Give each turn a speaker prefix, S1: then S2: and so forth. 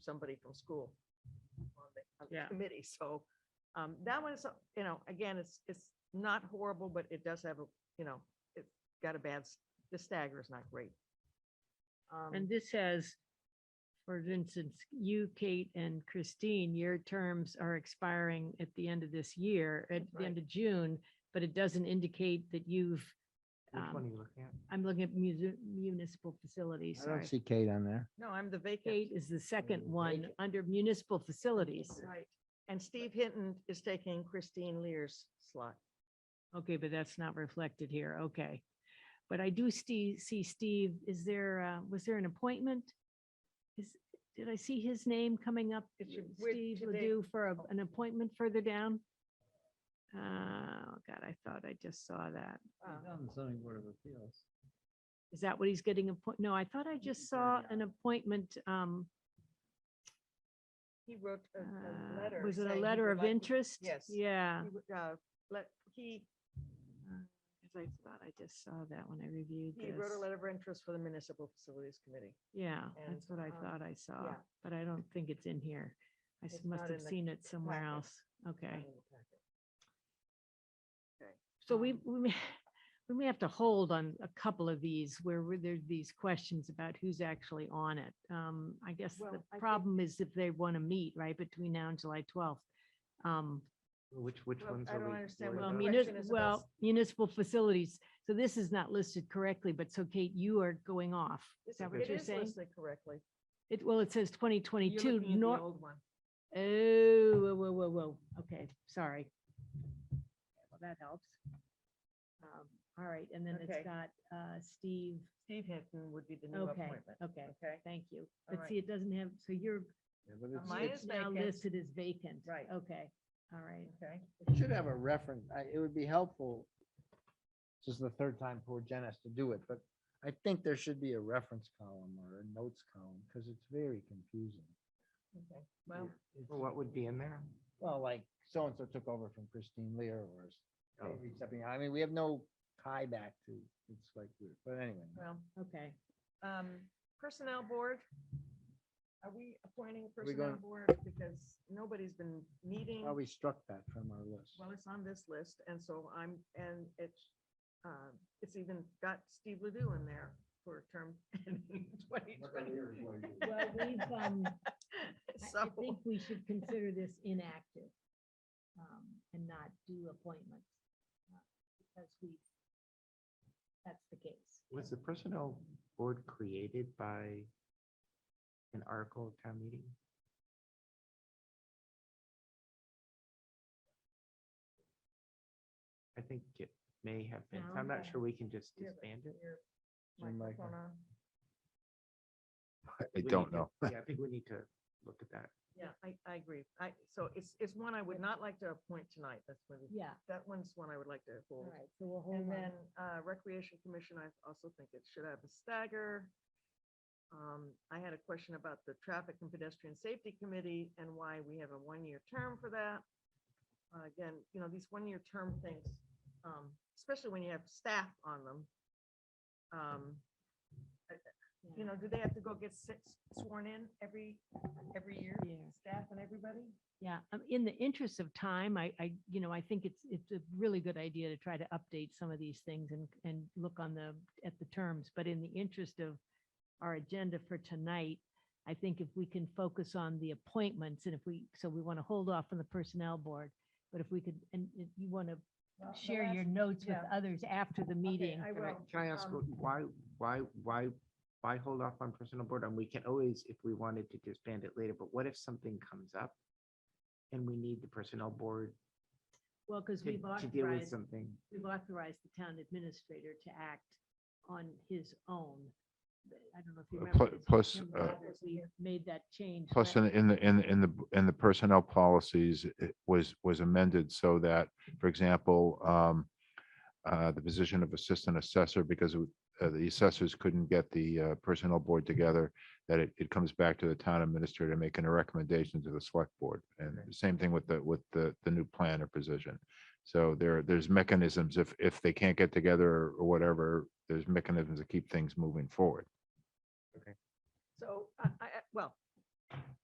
S1: somebody from school on the, on
S2: Yeah.
S1: the committee, so, um, that one is, uh, you know, again, it's, it's not horrible, but it does have a, you know, it got a bad, s- the stagger is not great. Um,
S2: And this has, for instance, you, Kate and Christine, your terms are expiring at the end of this year, at
S1: That's
S2: the end of June, but it doesn't indicate that you've,
S3: Which one
S2: um,
S3: are you looking at?
S2: I'm looking at muni- municipal facilities,
S4: I don't
S2: sorry.
S4: see Kate on there.
S1: No, I'm the vacate.
S2: Kate is the second
S4: Mm,
S2: one
S4: vacant.
S2: under municipal facilities.
S1: Right. And Steve Hinton is taking Christine Lear's slot.
S2: Okay, but that's not reflected here. Okay. But I do see, see Steve, is there, uh, was there an appointment? Is, did I see his name coming up?
S1: It should- we're
S2: Steve
S1: today-
S2: Ledoux for a- an appointment further down? Uh, Oh God, I thought I just saw that.
S1: Um,
S4: on the zoning board of appeals.
S2: Is that what he's getting appoint? No, I thought I just saw an appointment. um,
S1: He wrote a, a
S2: uh,
S1: letter.
S2: Was it a
S1: saying he
S2: letter
S1: would
S2: of
S1: like-
S2: interest?
S1: yes.
S2: Yeah.
S1: he would, uh, Let, he,
S2: Because I thought I just saw that when I reviewed this.
S1: he wrote a letter of interest for the Municipal Facilities Committee.
S2: Yeah,
S1: And,
S2: that's what I
S1: um,
S2: thought I saw,
S1: yeah.
S2: but I don't think it's in here. I s-
S1: It's
S2: must
S1: not
S2: have
S1: in the
S2: seen it somewhere
S1: packet. Um,
S2: else. Okay,
S1: In the packet.
S2: so we,
S1: Um,
S2: we may, we may have to hold on a couple of these where we- there's these questions about who's actually on it. Um, I guess
S1: Well,
S2: the
S1: I think-
S2: problem is if they want to meet right between now and July twelfth. Um,
S3: Which, which
S1: Well,
S3: ones
S1: I
S3: are we?
S1: don't understand
S3: worried
S1: what
S2: well,
S1: the
S3: about?
S1: mean,
S2: munis-
S1: question is about
S2: well,
S1: s-
S2: municipal facilities. So this is not listed correctly, but so Kate, you are going off. Is
S1: It's-
S2: that what
S1: It
S2: you're
S1: is
S2: saying?
S1: listed correctly.
S2: It, well, it says twenty
S1: You're
S2: twenty-two,
S1: looking at the
S2: nor,
S1: Old one.
S2: Oh, whoa, whoa, whoa, whoa. Okay, sorry. Well, that helps. Um, All right, and then
S1: Okay.
S2: it's got uh Steve.
S1: Steve Hinton would be the new
S2: Okay,
S1: appointment.
S2: okay,
S1: Okay,
S2: thank you.
S1: All
S2: But see, it doesn't have, so you're
S4: Yeah, but
S1: Uh, mine
S4: it's-
S1: is
S2: it's now
S1: vacant.
S2: listed as vacant.
S1: Right.
S2: Okay, all right.
S1: okay.
S4: It should have a reference. I, it would be helpful. This is the third time poor Jen has to do it, but I think there should be a reference column or a notes column because it's very confusing.
S1: okay. Well,
S4: It- it's-
S3: What would be in there?
S4: Well, like so-and-so took over from Christine Lear or s-
S3: Oh.
S4: maybe something. I mean, we have no tie back to, it's like, weird. but anyway.
S1: well,
S2: Okay,
S1: um, Personnel Board. Are we appointing a
S4: Are we
S1: Personnel
S4: going-
S1: Board? Because nobody's been meeting.
S4: Well, we struck that from our list.
S1: Well, it's on this list, and so I'm, and it's, um, it's even got Steve Ledoux in there for a term in twenty twenty.
S2: well, we've, um, I- I
S1: So,
S2: think we should consider this inactive um, and not do appointments. uh, Because we, that's the case.
S3: Was the personnel board created by an article at town meeting? I think it may have been. so I'm
S2: No.
S3: not sure we can just
S1: Yeah, but-
S3: disband it.
S1: Your
S4: Your
S1: microphone
S4: micro-
S1: on.
S5: I
S3: We
S5: don't
S3: need to-
S5: know.
S3: Yeah, I think we need to look at that.
S1: Yeah, I, I agree. I, so it's, it's one I would not like to appoint tonight. That's when,
S2: Yeah,
S1: that one's one I would like to
S2: all
S1: hold.
S2: right, so we'll hold
S1: And
S2: on.
S1: then uh, Recreation Commission, I also think it should have a stagger. Um, I had a question about the Traffic and Pedestrian Safety Committee and why we have a one-year term for that. Uh, Again, you know, these one-year term things, um, especially when you have staff on them. um, You know, do they have to go get six- sworn in every, every year,
S2: Yeah.
S1: staff and everybody?
S2: Yeah, um, in the interest of time, I, I, you know, I think it's, it's a really good idea to try to update some of these things and, and look on the, at the terms. But in the interest of our agenda for tonight, I think if we can focus on the appointments and if we, so we want to hold off on the personnel board. But if we could, and if you want to share your notes with
S1: yeah.
S2: others after the meeting.
S1: I
S3: Can I,
S1: will.
S3: can I ask,
S1: um,
S3: what- why, why, why, why hold off on personal board? And we can always, if we wanted to disband it later, but what if something comes up? And we need the personnel board
S2: Well, because
S3: to,
S2: we've
S3: to deal with
S2: authorized,
S3: something?
S2: we've authorized the town administrator to act on his own. I don't know if you
S5: Uh,
S2: remember.
S5: pl-
S2: this,
S5: plus,
S2: Jim,
S5: uh,
S2: Roberts, We made that change.
S5: Plus,
S2: last-
S5: in, in, the- in, the- in the, in the personnel policies, it was, was amended so that, for example, um, uh, the position of assistant assessor, because it would- uh, the assessors couldn't get the uh, personnel board together, that it, it comes back to the town administrator making a recommendation to the select board. And
S3: Okay.
S5: the same thing with the, with the, the new planner position. So there, there's mechanisms, if, if they can't get together or whatever, there's mechanisms to keep things moving forward.
S1: So I, I, I- well,